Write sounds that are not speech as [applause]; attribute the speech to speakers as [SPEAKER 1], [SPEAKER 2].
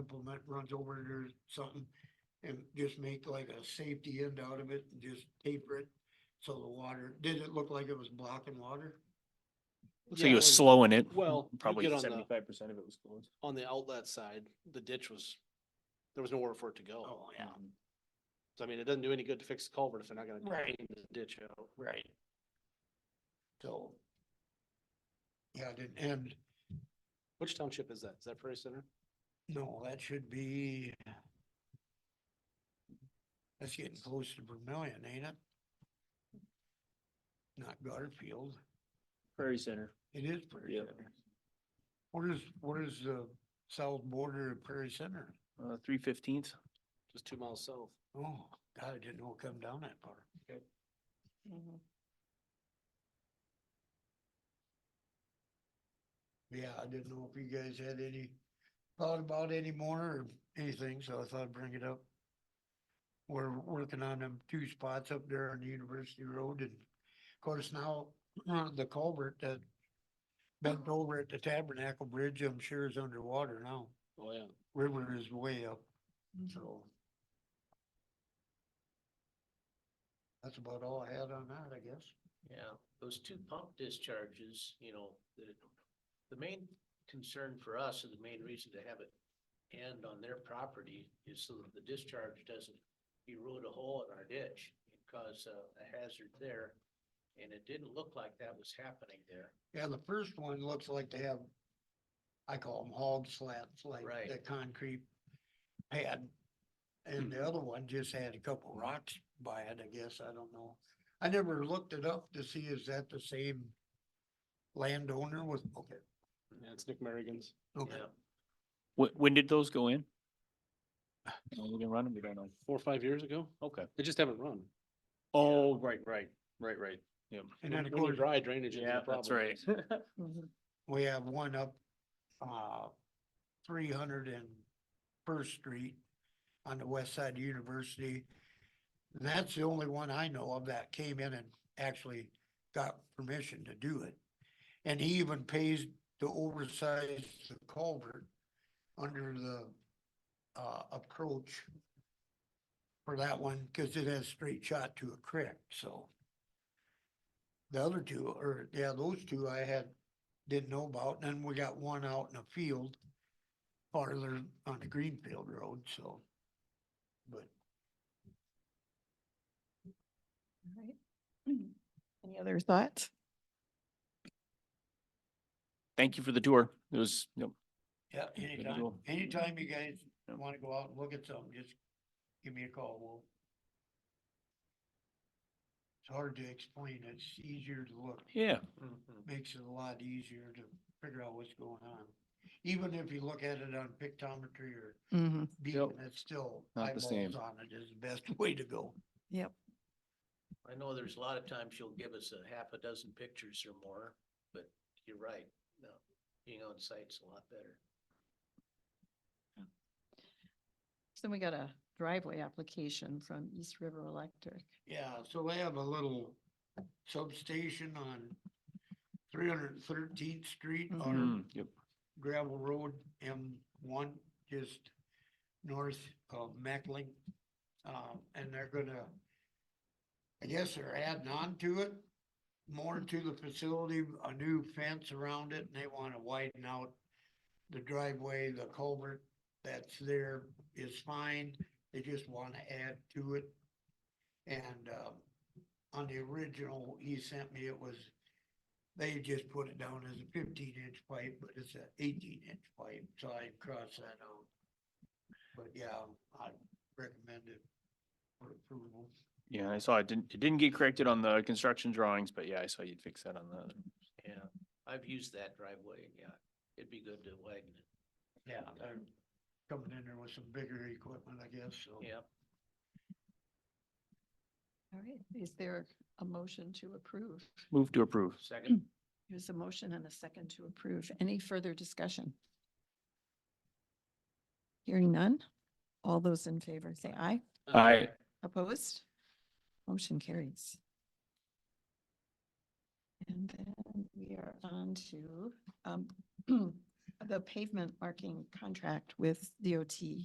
[SPEAKER 1] implement runs over it or something. And just make like a safety end out of it and just taper it. So the water, did it look like it was blocking water?
[SPEAKER 2] So
[SPEAKER 3] Yeah,
[SPEAKER 2] you were
[SPEAKER 3] when-
[SPEAKER 2] slowing it.
[SPEAKER 3] Well, you
[SPEAKER 2] Probably
[SPEAKER 3] get on the-
[SPEAKER 2] seventy-five percent of it was closed.
[SPEAKER 3] On the outlet side, the ditch was, there was nowhere for it to go. Um,
[SPEAKER 1] Oh, yeah,
[SPEAKER 3] So I mean, it doesn't do any good to fix the culvert if they're not gonna
[SPEAKER 1] Right.
[SPEAKER 3] clean the ditch out.
[SPEAKER 1] right. So. Yeah, it didn't end.
[SPEAKER 3] Which township is that? Is that Prairie Center?
[SPEAKER 1] No, that should be. That's getting close to Vermillion, ain't it? Not Garfield.
[SPEAKER 2] Prairie Center.
[SPEAKER 1] It is Prairie
[SPEAKER 2] Yep.
[SPEAKER 1] Center. What is, what is the south border of Prairie Center?
[SPEAKER 2] Uh, three fifteenth.
[SPEAKER 3] Just two miles south.
[SPEAKER 1] Oh, God, I didn't know it come down that far. Yeah, I didn't know if you guys had any thought about any more or anything, so I thought I'd bring it up. We're working on them two spots up there on the University Road and of course now [clears throat] the culvert that bent over at the Tabernacle Bridge, I'm sure is underwater now.
[SPEAKER 3] Oh, yeah.
[SPEAKER 1] River is way up,
[SPEAKER 4] Mm-hmm.
[SPEAKER 1] so. That's about all I had on that, I guess.
[SPEAKER 4] Yeah, those two pump discharges, you know, the, the main concern for us and the main reason to have it end on their property is so that the discharge doesn't erode a hole in our ditch and cause a a hazard there. And it didn't look like that was happening there.
[SPEAKER 1] Yeah, the first one looks like they have, I call them hog slats, like
[SPEAKER 4] Right.
[SPEAKER 1] the concrete pad. And
[SPEAKER 4] Hmm.
[SPEAKER 1] the other one just had a couple rocks by it, I guess, I don't know. I never looked it up to see is that the same landowner with, okay,
[SPEAKER 3] Yeah, it's Nick Merrigan's.
[SPEAKER 1] okay,
[SPEAKER 4] Yeah.
[SPEAKER 2] When, when did those go in? Oh, we can run them, we don't know.
[SPEAKER 3] Four or five years ago?
[SPEAKER 2] Okay.
[SPEAKER 3] They just haven't run.
[SPEAKER 2] Oh, right, right, right, right. Yeah.
[SPEAKER 1] and then of
[SPEAKER 3] When you
[SPEAKER 1] course,
[SPEAKER 3] dry drainage is
[SPEAKER 2] Yeah,
[SPEAKER 3] a
[SPEAKER 2] that's
[SPEAKER 3] problem.
[SPEAKER 2] right.
[SPEAKER 1] we have one up, uh, three hundred and First Street on the west side of University. And that's the only one I know of that came in and actually got permission to do it. And he even pays to oversize the culvert under the, uh, approach for that one, cause it has straight shot to a creek, so. The other two, or, yeah, those two I had, didn't know about, and then we got one out in a field farther on the Greenfield Road, so. But
[SPEAKER 5] Alright. [clears throat] Any other thoughts?
[SPEAKER 2] Thank you for the tour. It was, yep.
[SPEAKER 1] Yeah, anytime,
[SPEAKER 2] deal.
[SPEAKER 1] anytime you guys
[SPEAKER 2] Yeah.
[SPEAKER 1] wanna go out and look at something, just give me a call, we'll. It's hard to explain, it's easier to look,
[SPEAKER 2] yeah,
[SPEAKER 4] Mhm.
[SPEAKER 1] makes it a lot easier to figure out what's going on. Even if you look at it on pictometry or
[SPEAKER 5] Mm-hmm.
[SPEAKER 1] beacon, it's still
[SPEAKER 2] Not the
[SPEAKER 1] eyeballs
[SPEAKER 2] same.
[SPEAKER 1] on it is the best [laughs] way to go.
[SPEAKER 5] Yep.
[SPEAKER 4] I know there's a lot of times you'll give us a half a dozen pictures or more, but you're right. No, being on site's a lot better.
[SPEAKER 5] So then we got a driveway application from East River Electric.
[SPEAKER 1] Yeah, so they have a little substation on three hundred thirteenth street or
[SPEAKER 2] Mm, yep.
[SPEAKER 1] gravel road M one, just north of Meckling. Um, and they're gonna, I guess they're adding on to it, more to the facility, a new fence around it, and they wanna widen out the driveway, the culvert that's there is fine, they just wanna add to it. And, um, on the original, he sent me, it was they just put it down as a fifteen inch pipe, but it's an eighteen inch pipe, so I crossed that out. But yeah, I recommend it for approval.
[SPEAKER 2] Yeah, I saw it didn't, it didn't get corrected on the construction drawings, but yeah, I saw you'd fix that on the.
[SPEAKER 4] Yeah, I've used that driveway. Yeah, it'd be good to widen it.
[SPEAKER 1] Yeah. They're coming in there with some bigger equipment, I guess, so.
[SPEAKER 4] Yeah.
[SPEAKER 5] All right, is there a motion to approve?
[SPEAKER 2] Move to approve.
[SPEAKER 4] Second,
[SPEAKER 5] There's a motion and a second to approve. Any further discussion? Hearing none. All those in favor say aye.
[SPEAKER 1] Uh,
[SPEAKER 2] Aye.
[SPEAKER 5] Opposed? Motion carries. [clears throat] And then we are on to, um, the pavement marking contract with DOT